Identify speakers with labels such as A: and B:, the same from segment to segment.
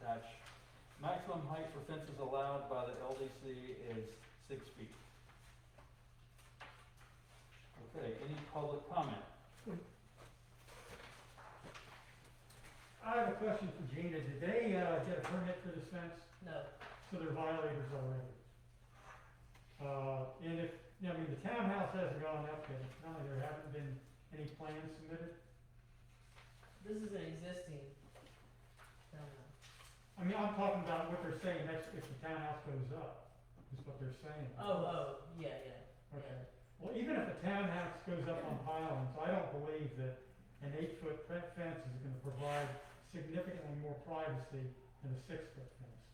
A: dash, maximum height for fences allowed by the LDC is six feet. Okay, any public comment?
B: I have a question for Gina. Did they, uh, get a permit for this fence?
C: No,
B: So they're violators already. Uh, and if, I mean, the townhouse hasn't gone up yet. Apparently there haven't been any plans submitted.
C: this is an existing, no, no.
B: I mean, I'm talking about what they're saying, that's if the townhouse goes up, is what they're saying.
C: Oh, oh, yeah, yeah,
B: Okay. Well, even if the townhouse goes up on pylons, I don't believe that an eight-foot fe- fence is gonna provide significantly more privacy than a six-foot fence.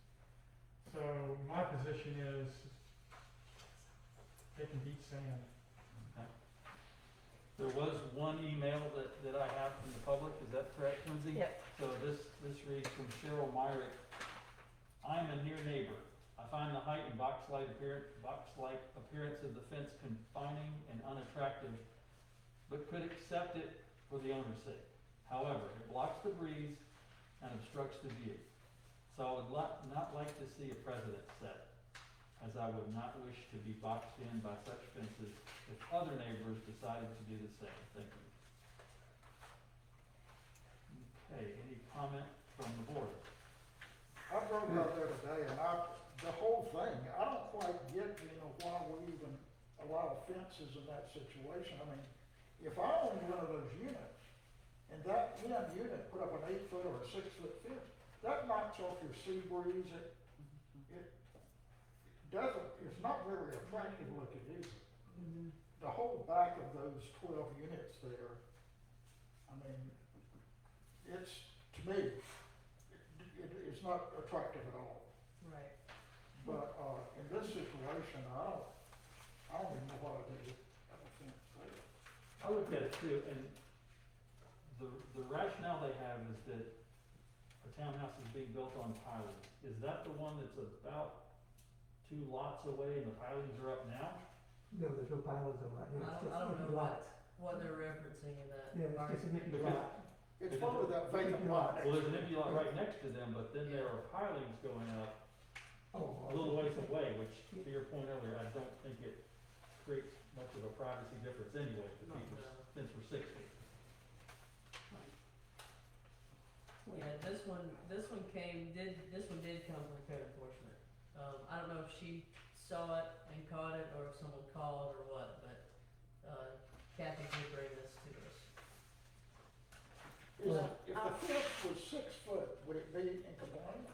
B: So my position is, they can beat sand.
A: There was one email that, that I have from the public, is that correct, Lindsay?
C: Yep.
A: So this, this reads from Cheryl Myrick. I'm a near neighbor. I find the height and box-like appearance, box-like appearance of the fence confining and unattractive, but could accept it for the owner's sake. However, it blocks the breeze and obstructs the view. So I would lot, not like to see a precedent set, as I would not wish to be boxed in by such fences if other neighbors decided to do the same. Thank you. Okay, any comment from the board?
D: I drove out there today and I, the whole thing, I don't quite get, you know, why we even allow fences in that situation. I mean, if I owned one of those units and that end unit put up an eight foot or a six foot fence, that knocks off your sea breeze, it, it doesn't, it's not very attractive looking, is it? The whole back of those twelve units there, I mean, it's, to me, it, it's not attractive at all.
C: right.
D: But, uh, in this situation, I don't, I don't even know what I did. I don't think so.
A: I looked at it too, and the, the rationale they have is that a townhouse is being built on pilings. Is that the one that's about two lots away and the pilings are up now?
E: No, there's no pylons on that, no,
C: I
E: it's just
C: don't, I don't know
E: empty
C: what,
E: lots.
C: what they're referencing in that.
E: Yeah, it's just an empty
A: Because-
E: lot.
D: It's probably that vacant lot.
A: Well, there's an empty lot right next to them, but then there are pilings going up
E: Oh,
A: a
E: okay.
A: little ways away, which to your point earlier, I don't think it creates much of a privacy difference anyway, if the
D: No.
A: people, since we're six feet.
C: No. Yeah, this one, this one came, did, this one did come from code enforcement. Um, I don't know if she saw it and caught it, or if someone called or what, but, uh, Kathy did bring this to us.
D: Is it- If the fence was six foot, would it be in compliance?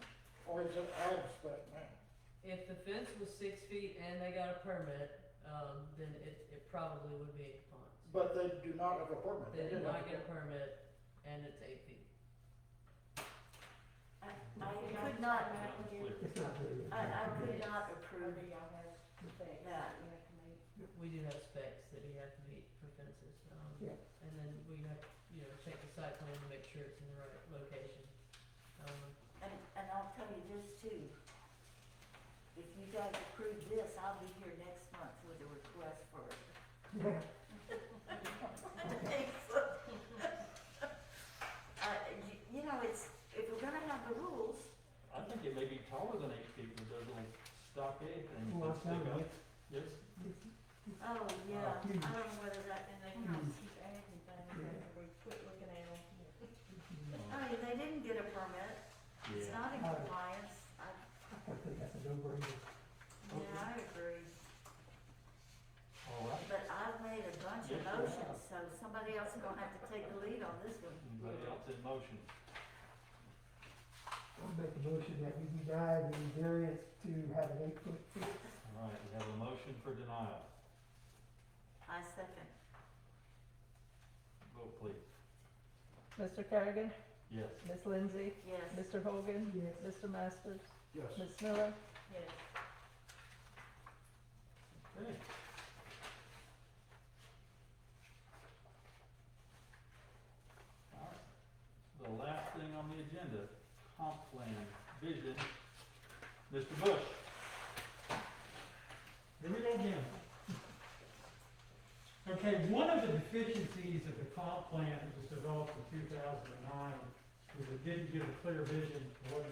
D: Or is it out of spec now?
C: If the fence was six feet and they got a permit, um, then it, it probably would be in compliance.
D: But they do not have a permit.
C: They did
D: didn't have
C: not get a permit, and it's eight feet.
F: I, I could not,
E: It's not very.
F: I, I could not approve that.
C: We do have specs that you have to meet for fences, um,
E: Yeah.
C: and then we have, you know, check the site plan to make sure it's in the right location. Um,
F: And, and I'll tell you this too. If you guys approve this, I'll be here next month with a request for it.
E: Yeah,
F: Uh, you, you know, it's, if we're gonna have the rules,
A: I think it may be taller than eight feet with those little stockade things
E: well, it's
A: that stick
E: not
A: up.
E: like-
A: Yes,
F: oh, yeah, I
E: Hmm.
F: don't know whether that, and they can
E: Hmm.
F: keep adding things,
E: Yeah.
F: and we quit looking at them. I mean, they didn't get a permit, Uh, it's
A: yeah,
F: not in
E: Oh.
F: compliance, I,
E: I think that's a no-brainer.
F: yeah, I agree.
A: all right.
F: But I've made a bunch of
A: Yes, you have.
F: motions, so somebody else is gonna have to take the lead on this one.
A: Anybody else in motion?
E: I'll make a motion that we deny the variance to have an eight-foot fence.
A: All right, we have a motion for denial.
F: I second.
A: Vote please.
G: Mr. Kerrigan,
A: Yes.
G: Ms. Lindsay,
F: Yes.
G: Mr. Hogan,
E: Yes.
G: Mr. Masters,
D: Yes.
G: Ms. Miller,
F: Yes.
A: Okay. All right. The last thing on the agenda, comp plan, vision. Mr. Bush,
B: Here we go again. Okay, one of the deficiencies of the comp plan that was developed in two thousand and nine was it didn't give a clear vision of what